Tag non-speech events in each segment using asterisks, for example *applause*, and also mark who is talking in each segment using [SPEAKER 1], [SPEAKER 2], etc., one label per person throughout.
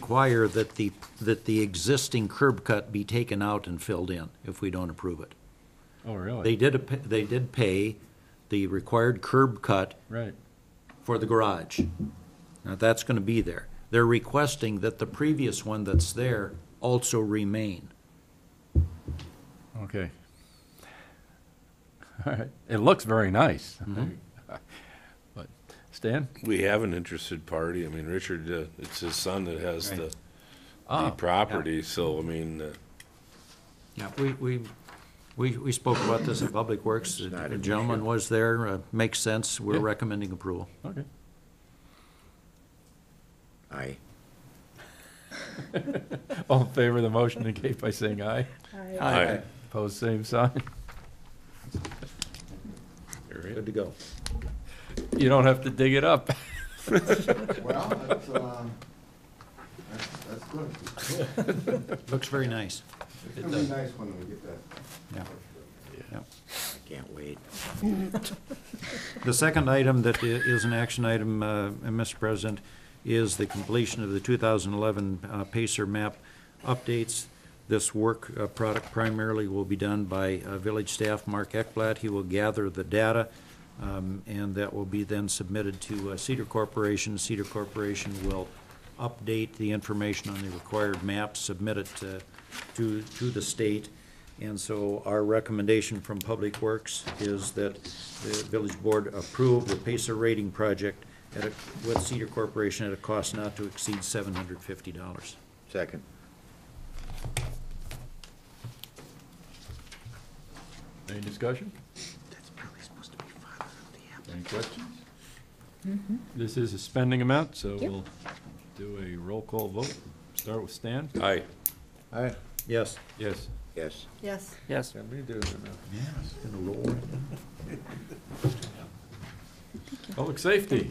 [SPEAKER 1] require that the, that the existing curb cut be taken out and filled in if we don't approve it.
[SPEAKER 2] Oh, really?
[SPEAKER 1] They did, a- they did pay the required curb cut
[SPEAKER 2] Right.
[SPEAKER 1] for the garage. Now, that's gonna be there. They're requesting that the previous one that's there also remain.
[SPEAKER 2] Okay. *laughs* All right. It looks very nice. *laughs* Mm-hmm. But, Stan?
[SPEAKER 3] We have an interested party. I mean, Richard, uh, it's his son that has the,
[SPEAKER 2] Ah,
[SPEAKER 3] the property, so, I mean, uh,
[SPEAKER 1] Yeah, we, we, we, we spoke about this in Public Works. The gentleman was there, uh, makes sense. We're
[SPEAKER 2] Yeah.
[SPEAKER 1] recommending approval.
[SPEAKER 2] Okay.
[SPEAKER 4] Aye.
[SPEAKER 2] All in favor of the motion indicate by saying aye.
[SPEAKER 3] I,
[SPEAKER 2] Opposed, same sign.
[SPEAKER 1] Good to go.
[SPEAKER 2] You don't have to dig it up. *laughs*
[SPEAKER 5] Well, that's, um, that's, that's good.
[SPEAKER 1] Looks very nice.
[SPEAKER 5] It's gonna be nice when we get that.
[SPEAKER 1] Yeah. Yeah.
[SPEAKER 4] I can't wait.
[SPEAKER 1] The second item that i- is an action item, uh, and Mr. President, is the completion of the 2011 uh, Pacer map updates. This work uh, product primarily will be done by uh, village staff, Mark Ekblad. He will gather the data, um, and that will be then submitted to uh, Cedar Corporation. Cedar Corporation will update the information on the required map, submit it uh, to, to the state. And so our recommendation from Public Works is that the village board approve the Pacer rating project at a, with Cedar Corporation at a cost not to exceed seven hundred fifty dollars.
[SPEAKER 4] Second.
[SPEAKER 2] Any discussion?
[SPEAKER 4] That's probably supposed to be father of the apple.
[SPEAKER 2] Any questions? This is a spending amount, so we'll do a roll call vote. Start with Stan?
[SPEAKER 3] I,
[SPEAKER 1] Yes.
[SPEAKER 2] Yes.
[SPEAKER 4] Yes.
[SPEAKER 6] Yes.
[SPEAKER 7] Yes.
[SPEAKER 2] Public safety.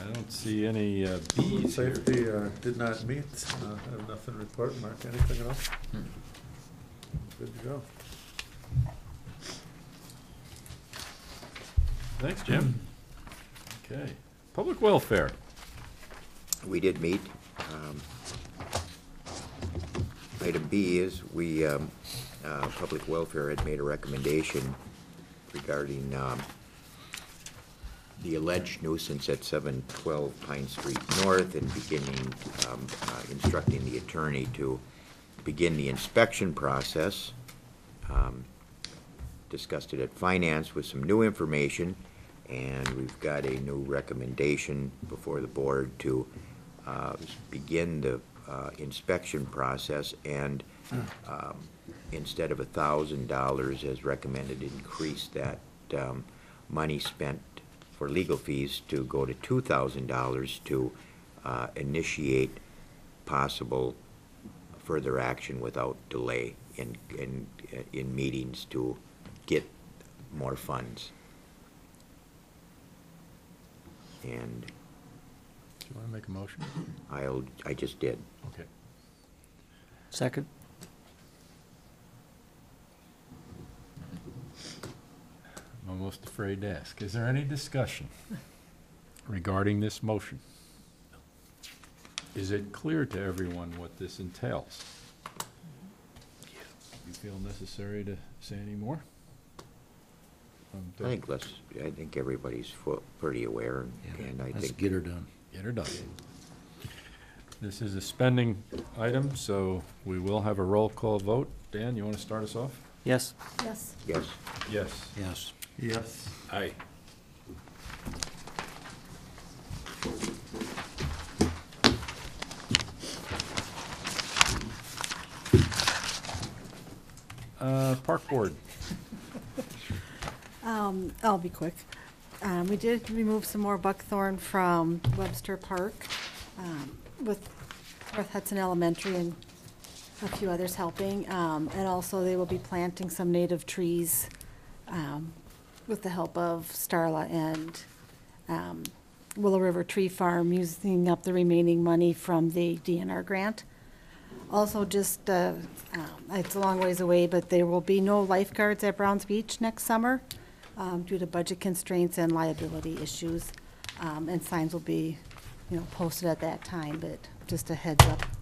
[SPEAKER 2] I don't see any uh, Bs here.
[SPEAKER 8] Safety uh, did not meet, Uh, I have nothing to report, Mark, anything at all?
[SPEAKER 4] Hmm.
[SPEAKER 8] Good to go.
[SPEAKER 2] Thanks, Jim. Okay. Public welfare.
[SPEAKER 4] We did meet. Um, Item B is, we, um, uh, Public Welfare had made a recommendation regarding um, the alleged nuisance at 712 Pine Street North and beginning, um, uh, instructing the attorney to begin the inspection process. Um, Discussed it at Finance with some new information, and we've got a new recommendation before the board to uh, begin the uh, inspection process and um, instead of a thousand dollars as recommended, increase that um, money spent for legal fees to go to two thousand dollars to uh, initiate possible further action without delay in, in, in meetings to get more funds. And
[SPEAKER 2] Do you want to make a motion?
[SPEAKER 4] I'll, I just did.
[SPEAKER 2] Okay.
[SPEAKER 7] Second?
[SPEAKER 2] I'm almost afraid to ask. Is there any discussion regarding this motion? Is it clear to everyone what this entails? You feel necessary to say any more? Um,
[SPEAKER 4] I think let's, I think everybody's fu- pretty aware and I
[SPEAKER 1] Let's
[SPEAKER 4] think.
[SPEAKER 1] get her done.
[SPEAKER 2] Get her done. This is a spending item, so we will have a roll call vote. Dan, you want to start us off?
[SPEAKER 7] Yes.
[SPEAKER 6] Yes.
[SPEAKER 4] Yes,
[SPEAKER 2] Yes.
[SPEAKER 1] Yes.
[SPEAKER 8] Yes.
[SPEAKER 3] I,
[SPEAKER 2] Uh, Park Board.
[SPEAKER 6] Um, I'll be quick. Um, we did remove some more buckthorn from Webster Park, um, with North Hudson Elementary and a few others helping. Um, and also they will be planting some native trees, um, with the help of Starla and, um, Willow River Tree Farm, using up the remaining money from the DNR grant. Also, just, uh, um, it's a long ways away, but there will be no lifeguards at Browns Beach next summer um, due to budget constraints and liability issues. Um, And signs will be you know, posted at that time, but just a heads up